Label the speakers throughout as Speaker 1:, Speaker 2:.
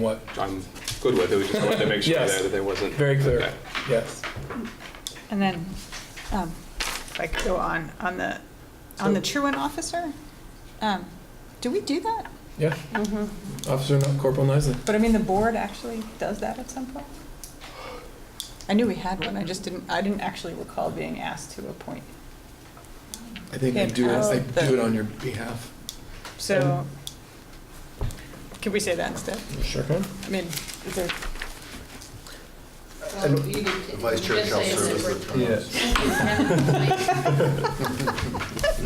Speaker 1: what,
Speaker 2: I'm good with it, we just wanted to make sure
Speaker 1: Yes.
Speaker 2: that there wasn't.
Speaker 1: very clear,
Speaker 2: Okay.
Speaker 1: yes.
Speaker 3: And then, um, if I could go on, on the, on the truant officer, um, do we do that?
Speaker 1: Yeah. Officer Kn- Corporal Nisley.
Speaker 3: But I mean, the board actually does that at some point? I knew we had one, I just didn't, I didn't actually recall being asked to appoint.
Speaker 1: I think I
Speaker 3: Yeah,
Speaker 1: do, it- I
Speaker 3: ask the-
Speaker 1: do it on your behalf.
Speaker 3: So, can we say that instead?
Speaker 1: Sure can.
Speaker 3: I mean, is there,
Speaker 4: Well, you could-
Speaker 5: Vice
Speaker 4: you
Speaker 5: chair
Speaker 4: could
Speaker 5: shall
Speaker 4: say
Speaker 5: serve as
Speaker 4: separate-
Speaker 5: the term.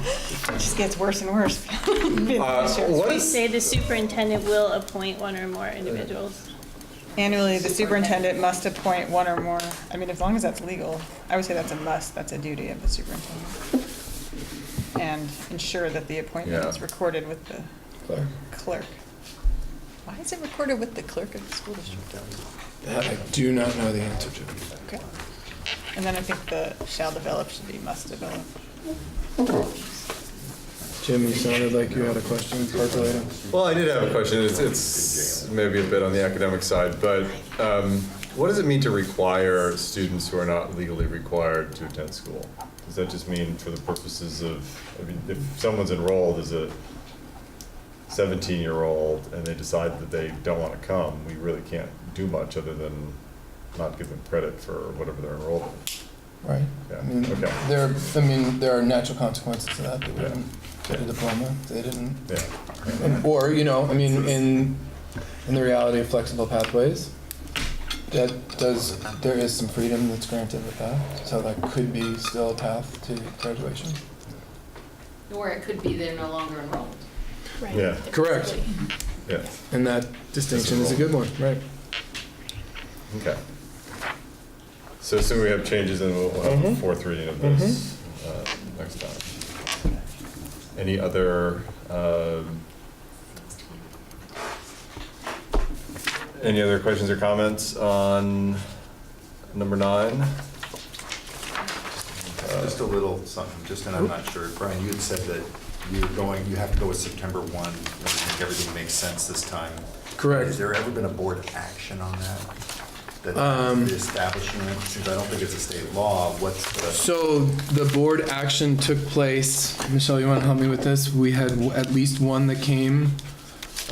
Speaker 3: it just gets worse and worse. Being
Speaker 2: Uh,
Speaker 3: the
Speaker 2: what
Speaker 3: sheriff.
Speaker 2: is-
Speaker 6: Say the superintendent will appoint one or more individuals.
Speaker 3: Annually, the superintendent must appoint one or more, I mean, as long as that's legal, I would say that's a must, that's a duty of the superintendent. And ensure that the appointment is
Speaker 5: Yeah.
Speaker 3: recorded with the
Speaker 1: Claire.
Speaker 3: clerk. Why is it recorded with the clerk of the school district?
Speaker 1: That I do not know the answer to.
Speaker 3: Okay. And then I think the shall develop should be must develop.
Speaker 1: Jim, you sounded like you had a question percolating.
Speaker 7: Well, I did have a question. It's, it's maybe a bit on the academic side, but um, what does it mean to require students who are not legally required to attend school? Does that just mean for the purposes of, I mean, if someone's enrolled as a 17-year-old and they decide that they don't want to come, we really can't do much other than not give them credit for whatever they're enrolled in.
Speaker 1: Right.
Speaker 7: Yeah,
Speaker 1: I mean,
Speaker 7: okay.
Speaker 1: there, I mean, there are natural consequences to that. They
Speaker 7: Yeah.
Speaker 1: wouldn't get a diploma. if They didn't.
Speaker 7: Yeah.
Speaker 1: And- Or, you know, I mean, in, in the reality of flexible pathways, that does, there is some freedom that's granted with that. So that could be still a path to graduation.
Speaker 4: Or it could be they're no longer enrolled.
Speaker 7: Yeah,
Speaker 1: Correct.
Speaker 7: yeah,
Speaker 1: And that distinction is a good one, right?
Speaker 7: okay. So soon we have changes and we'll we'll have a
Speaker 1: Mhm.
Speaker 7: fourth reading of this uh, next time. Any other, um, any other questions or comments on number nine?
Speaker 1: Uh,
Speaker 5: Just a little something, just, and I'm not sure, Brian, you had said that you're going, you have to go with September 1, I think everything makes sense this time.
Speaker 1: Correct.
Speaker 5: Has there ever been a board action on that? That
Speaker 1: Um,
Speaker 5: the establishment, since I don't think it's a state law, what's the,
Speaker 1: So the board action took place. Michelle, you want to help me with this? We had w- at least one that came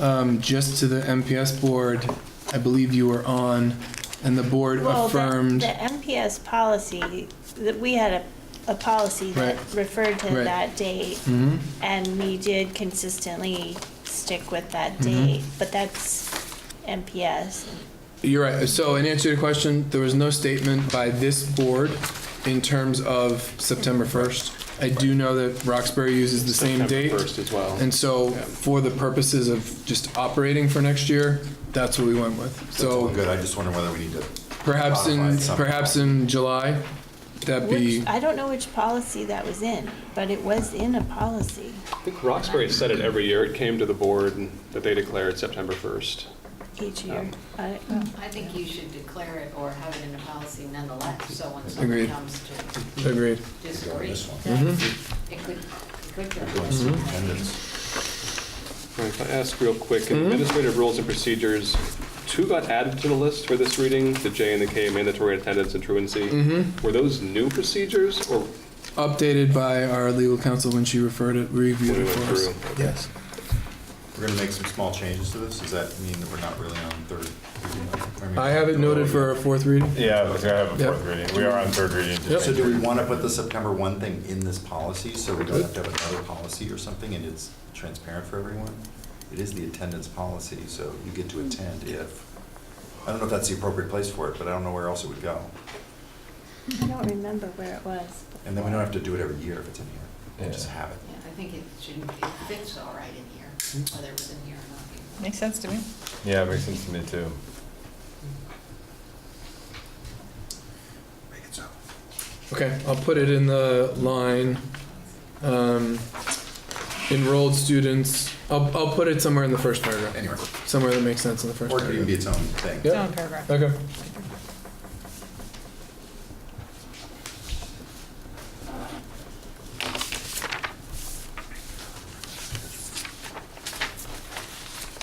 Speaker 1: um, just to the MPS board. I believe you were on, and the board
Speaker 6: Well, the- The
Speaker 1: affirmed.
Speaker 6: MPS policy, that we had a, a policy that
Speaker 1: Right.
Speaker 6: referred to
Speaker 1: Right.
Speaker 6: that date,
Speaker 1: Mhm.
Speaker 6: and we did consistently stick with that
Speaker 1: Mhm.
Speaker 6: date, but that's MPS.
Speaker 1: You're right. So in answer to your question, there was no statement by this board in terms of September 1st. I do know that Roxbury uses the same
Speaker 2: September
Speaker 1: date.
Speaker 2: First as well.
Speaker 1: And so for the purposes of just operating for next year, that's what we went with. So.
Speaker 5: good, I just wonder whether we need to.
Speaker 1: Perhaps in,
Speaker 5: modify something.
Speaker 1: perhaps in July, that be,
Speaker 6: Which, I don't know which policy that was in, but it was in a policy.
Speaker 2: I think Roxbury has said it every year, it came to the board and that they declared September 1st.
Speaker 6: each year.
Speaker 2: Um,
Speaker 5: Oh.
Speaker 6: I-
Speaker 4: I think you should declare it or have it in a policy nonetheless, so when
Speaker 1: Agreed.
Speaker 4: someone comes to
Speaker 1: agreed.
Speaker 4: disagree,
Speaker 5: This one.
Speaker 4: it could, it could. go.
Speaker 5: Doing some attendance.
Speaker 2: All right, If I ask real quick,
Speaker 1: Mm-hmm.
Speaker 2: in administrative rules and procedures, two got added to the list for this reading, the J and the K, mandatory attendance and truancy.
Speaker 1: Mm-hmm.
Speaker 2: Were those new procedures or
Speaker 1: Updated by our legal counsel when she referred it, reviewed
Speaker 2: when we
Speaker 1: it
Speaker 2: went
Speaker 1: for us.
Speaker 2: through?
Speaker 1: Yes.
Speaker 5: We're gonna make some small changes to this, does that mean that we're not really on third? reading?
Speaker 1: I have it noted for a fourth reading.
Speaker 7: Yeah, we're gonna have a
Speaker 1: Yep.
Speaker 7: fourth reading. We are on third reading.
Speaker 1: Yep.
Speaker 5: So do we want to put the September 1 thing in this policy, so we don't have to have another policy or something, and it's transparent for everyone? It is the attendance policy, so you get to attend if, I don't know if that's the appropriate place for it, but I don't know where else it would go.
Speaker 6: I don't remember where it was.
Speaker 5: And then we don't have to do it every year if it's in here, We just
Speaker 7: Yeah.
Speaker 5: have it.
Speaker 4: Yeah, I think it shouldn't, it fits all right in here, whether it was in here or not.
Speaker 3: Makes sense to me.
Speaker 7: Yeah, it makes sense to me too.
Speaker 5: Make it so.
Speaker 1: Okay, I'll put it in the line, um, enrolled students, I'll, I'll put it somewhere in the first paragraph,
Speaker 5: Anyway,
Speaker 1: somewhere that makes sense in the first
Speaker 5: or it could even be
Speaker 1: paragraph.
Speaker 5: its own thing.
Speaker 1: Yeah.
Speaker 3: It's on paragraph.
Speaker 1: Okay.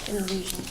Speaker 6: An illusion.